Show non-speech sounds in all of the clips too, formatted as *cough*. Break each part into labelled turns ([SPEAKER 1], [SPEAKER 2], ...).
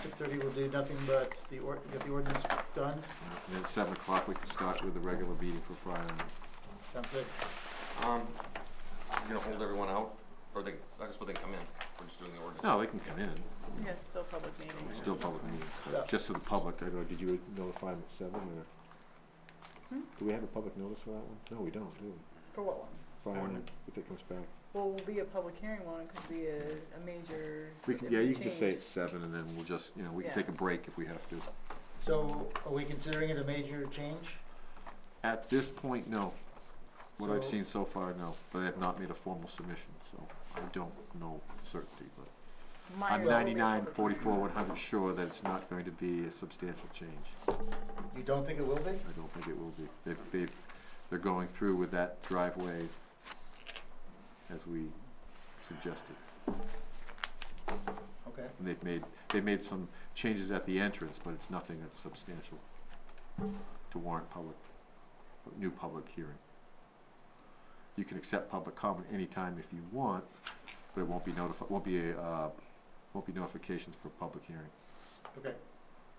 [SPEAKER 1] six thirty, we'll do nothing but the or, get the ordinance done,
[SPEAKER 2] And then at seven o'clock, we can start with the regular meeting for Friday.
[SPEAKER 1] sounds good.
[SPEAKER 3] Um, you gonna hold everyone out, or they, I guess, will they come in, we're just doing the ordinance?
[SPEAKER 2] No, they can come in,
[SPEAKER 4] Yeah, it's still public meeting.
[SPEAKER 2] it's still public meeting,
[SPEAKER 1] Yeah.
[SPEAKER 2] but just for the public, I go, did you notify them at seven or?
[SPEAKER 4] Hmm?
[SPEAKER 2] Do we have a public notice for that one? No, we don't, do we?
[SPEAKER 4] For what one?
[SPEAKER 2] Friday,
[SPEAKER 3] Ordinance.
[SPEAKER 2] if it comes back.
[SPEAKER 4] Well, will be a public hearing one, it could be a, a major.
[SPEAKER 2] We can, yeah, you can just say
[SPEAKER 4] change.
[SPEAKER 2] it's seven and then we'll just, you know, we can
[SPEAKER 4] Yeah.
[SPEAKER 2] take a break if we have to.
[SPEAKER 1] So are we considering it a major change?
[SPEAKER 2] At this point, no. What I've
[SPEAKER 1] So-
[SPEAKER 2] seen so far, no, but I have not made a formal submission, so I don't know certainty, but
[SPEAKER 4] Minor
[SPEAKER 2] I'm
[SPEAKER 4] will be a
[SPEAKER 2] ninety-nine,
[SPEAKER 4] public
[SPEAKER 2] forty-four, one hundred sure that it's not going to be a substantial change.
[SPEAKER 1] You don't think it will be?
[SPEAKER 2] I don't think it will be. They've, they've, they're going through with that driveway as we suggested.
[SPEAKER 1] Okay,
[SPEAKER 2] And they've made, they've made some changes at the entrance, but it's nothing that's substantial to warrant public, new public hearing. You can accept public comment anytime if you want, but it won't be notified, won't be, uh, won't be notifications for public hearing.
[SPEAKER 1] okay.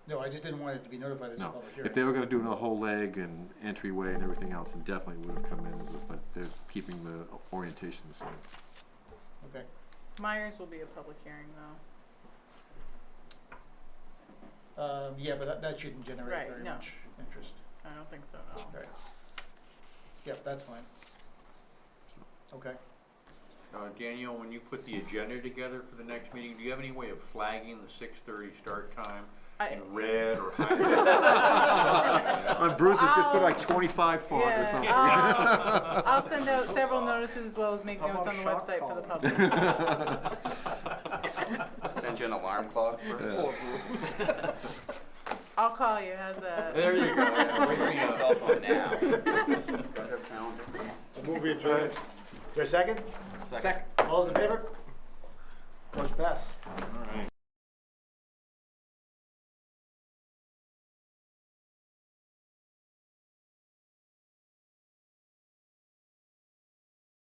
[SPEAKER 1] No, I just didn't want it to be notified as a
[SPEAKER 2] No.
[SPEAKER 1] public
[SPEAKER 2] If they
[SPEAKER 1] hearing.
[SPEAKER 2] were gonna do the whole leg and entryway and everything else, then definitely would have come in, with it, but they're keeping the orientation the same.
[SPEAKER 1] Okay,
[SPEAKER 4] hearing. Myers will be a public hearing though.
[SPEAKER 1] um, yeah, but that, that shouldn't generate
[SPEAKER 4] Right,
[SPEAKER 1] very
[SPEAKER 4] no.
[SPEAKER 1] much interest.
[SPEAKER 4] I don't think so, no.
[SPEAKER 1] Right. Yep, that's fine. Okay,
[SPEAKER 5] Uh, Daniel, when you put the agenda together for the next meeting, do you have any way of flagging the six thirty start time
[SPEAKER 4] I,
[SPEAKER 5] in red or highlighted?
[SPEAKER 2] On Bruce, it's just put like
[SPEAKER 4] I'll-
[SPEAKER 2] twenty-five font or
[SPEAKER 4] yeah, Oh.
[SPEAKER 2] something.
[SPEAKER 4] I'll, I'll send out several notices as well as make
[SPEAKER 6] How
[SPEAKER 4] notes on
[SPEAKER 6] about
[SPEAKER 4] the
[SPEAKER 6] shock
[SPEAKER 4] website for the
[SPEAKER 6] collar?
[SPEAKER 4] public.
[SPEAKER 3] Send you an alarm clock
[SPEAKER 2] Yeah.
[SPEAKER 4] I'll call you, how's that?
[SPEAKER 5] There you *laughs* go. yeah, we-
[SPEAKER 3] Bring your cell phone now.
[SPEAKER 6] Move adjourned.
[SPEAKER 1] is there a second?
[SPEAKER 3] Second.
[SPEAKER 1] All those in favor? Motion pass.
[SPEAKER 5] All right.